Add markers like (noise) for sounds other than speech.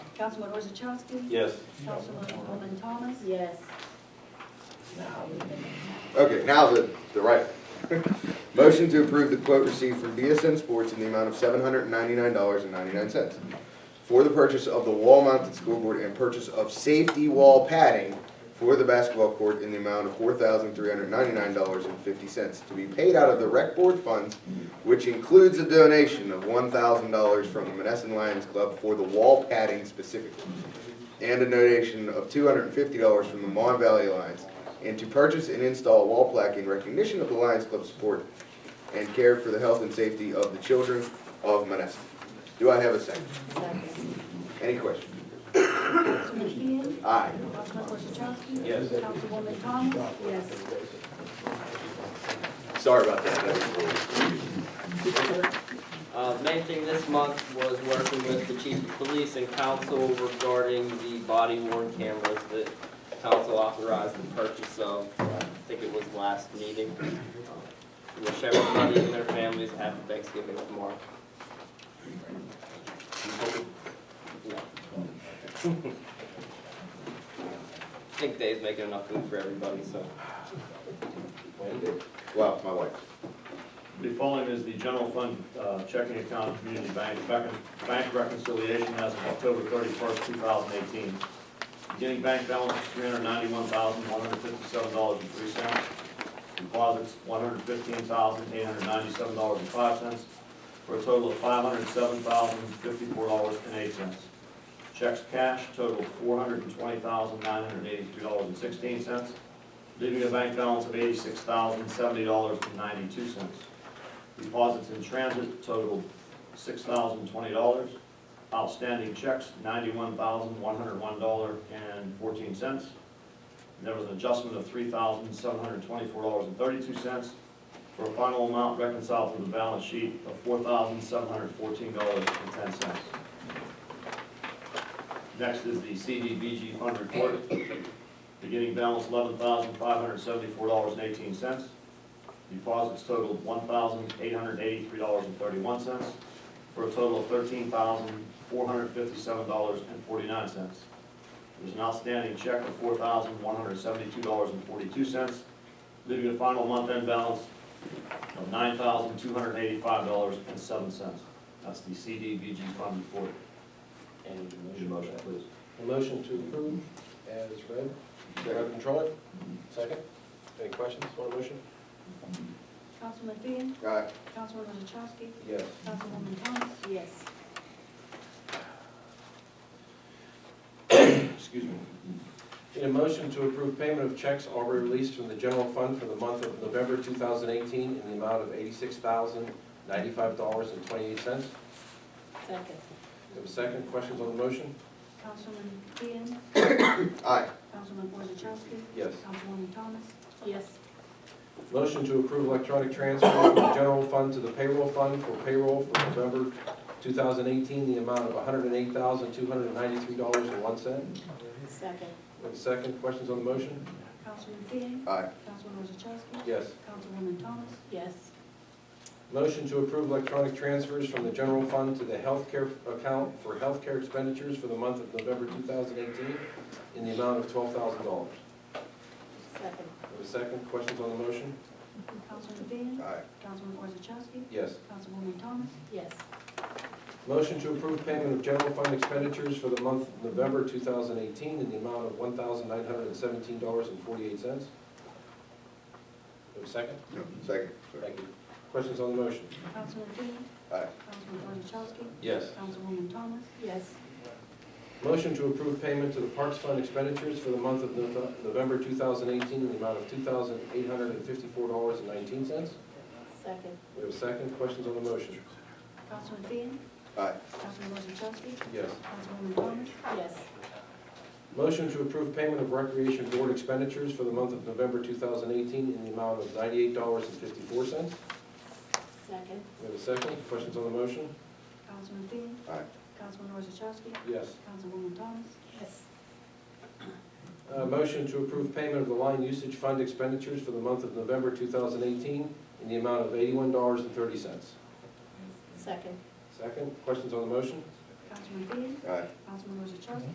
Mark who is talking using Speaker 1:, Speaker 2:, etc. Speaker 1: Councilman Orzachowski?
Speaker 2: Yes.
Speaker 1: Councilwoman Thomas?
Speaker 3: Yes.
Speaker 4: Okay, now the, the right. Motion to approve the quote received from BSN Sports in the amount of seven hundred and ninety-nine dollars and ninety-nine cents for the purchase of the wall-mounted scoreboard and purchase of safety wall padding for the basketball court in the amount of four thousand three hundred ninety-nine dollars and fifty cents to be paid out of the rec board funds, which includes a donation of one thousand dollars from the Menneson Lions Club for the wall padding specifically and a donation of two hundred and fifty dollars from the Mon Valley Alliance, and to purchase and install a wall plaque in recognition of the Lions Club support and care for the health and safety of the children of Menneson. Do I have a second? Any questions?
Speaker 1: Councilman Fian?
Speaker 4: Aye.
Speaker 1: Councilman Orzachowski?
Speaker 2: Yes.
Speaker 1: Councilwoman Thomas?
Speaker 3: Yes.
Speaker 4: Sorry about that. That was rude.
Speaker 5: Uh, the main thing this month was working with the chief of police and council regarding the body worn cameras that council authorized the purchase of, I think it was last meeting. Wish everybody and their families a happy Thanksgiving tomorrow. (laughs) Yeah. I think Dave's making enough food for everybody, so.
Speaker 4: Wow, my wife.
Speaker 2: The following is the general fund uh, checking account, community bank, rec- bank reconciliation as of October thirty-first, two thousand eighteen. Beginning bank balance is three hundred ninety-one thousand, one hundred fifty-seven dollars and three cents. Deposits, one hundred fifteen thousand, eight hundred ninety-seven dollars and five cents, for a total of five hundred seven thousand, fifty-four dollars and eight cents. Checks cash total four hundred and twenty thousand, nine hundred eighty-two dollars and sixteen cents, leaving a bank balance of eighty-six thousand, seventy dollars and ninety-two cents. Deposits in transit totaled six thousand twenty dollars. Outstanding checks, ninety-one thousand one hundred one dollar and fourteen cents. There was an adjustment of three thousand seven hundred twenty-four dollars and thirty-two cents for a final amount reconciled from the balance sheet of four thousand seven hundred fourteen dollars and ten cents. Next is the CDBG fund report. Beginning balance eleven thousand five hundred seventy-four dollars and eighteen cents. Deposits totaled one thousand eight hundred eighty-three dollars and thirty-one cents, for a total of thirteen thousand four hundred fifty-seven dollars and forty-nine cents. There's an outstanding check of four thousand one hundred seventy-two dollars and forty-two cents, leaving a final month-end balance of nine thousand two hundred eighty-five dollars and seven cents. That's the CDBG fund report.
Speaker 6: And
Speaker 2: Need a motion, please.
Speaker 6: a motion to approve as read, Reverend Troy, second. Any questions on the motion?
Speaker 1: Councilman Fian?
Speaker 4: Aye.
Speaker 1: Councilman Orzachowski?
Speaker 6: Yes.
Speaker 1: Councilwoman Thomas?
Speaker 3: Yes.
Speaker 6: Excuse me. Need a motion to approve payment of checks already released from the general fund for the month of November 2018 in the amount of $86,095.28. Have
Speaker 3: Second.
Speaker 6: a second, questions on the motion?
Speaker 1: Councilman Fian?
Speaker 4: Aye.
Speaker 1: Councilman Orzachowski?
Speaker 6: Yes.
Speaker 1: Councilwoman Thomas?
Speaker 3: Yes.
Speaker 6: Motion to approve electronic transfer from the general fund to the payroll fund for payroll for November 2018, the amount of $108,293.01.
Speaker 3: Second.
Speaker 6: Have a second, questions on the motion?
Speaker 1: Councilman Fian?
Speaker 4: Aye.
Speaker 1: Councilman Orzachowski?
Speaker 6: Yes.
Speaker 1: Councilwoman Thomas?
Speaker 3: Yes.
Speaker 6: Motion to approve electronic transfers from the general fund to the healthcare account for healthcare expenditures for the month of November 2018 in the amount of $12,000.
Speaker 3: Second.
Speaker 6: Have a second, questions on the motion?
Speaker 1: Councilman Fian?
Speaker 4: Aye.
Speaker 1: Councilman Orzachowski?
Speaker 6: Yes.
Speaker 1: Councilwoman Thomas?
Speaker 3: Yes.
Speaker 6: Motion to approve payment of general fund expenditures for the month of November 2018 in the amount of $1,917.48. Have a second?
Speaker 4: No, second.
Speaker 6: Thank you. Questions on the motion?
Speaker 1: Councilman Fian?
Speaker 4: Aye.
Speaker 1: Councilman Orzachowski?
Speaker 6: Yes.
Speaker 1: Councilwoman Thomas?
Speaker 3: Yes.
Speaker 6: Motion to approve payment to the Parks Fund expenditures for the month of Nov- November 2018 in the amount of $2,854.19.
Speaker 3: Second.
Speaker 6: We have a second, questions on the motion?
Speaker 1: Councilman Fian?
Speaker 4: Aye.
Speaker 1: Councilman Orzachowski?
Speaker 6: Yes.
Speaker 1: Councilwoman Thomas?
Speaker 3: Yes.
Speaker 6: Motion to approve payment of Recreation Board expenditures for the month of November 2018 in the amount of $98.54.
Speaker 3: Second.
Speaker 6: We have a second, questions on the motion?
Speaker 1: Councilman Fian?
Speaker 4: Aye.
Speaker 1: Councilman Orzachowski?
Speaker 6: Yes.
Speaker 1: Councilwoman Thomas?
Speaker 3: Yes.
Speaker 6: Uh, Motion to approve payment of the line usage fund expenditures for the month of November 2018 in the amount of $81.30.
Speaker 3: Second.
Speaker 6: Second, questions on the motion?
Speaker 1: Councilman Fian?
Speaker 4: Aye.
Speaker 1: Councilman Rosachowski?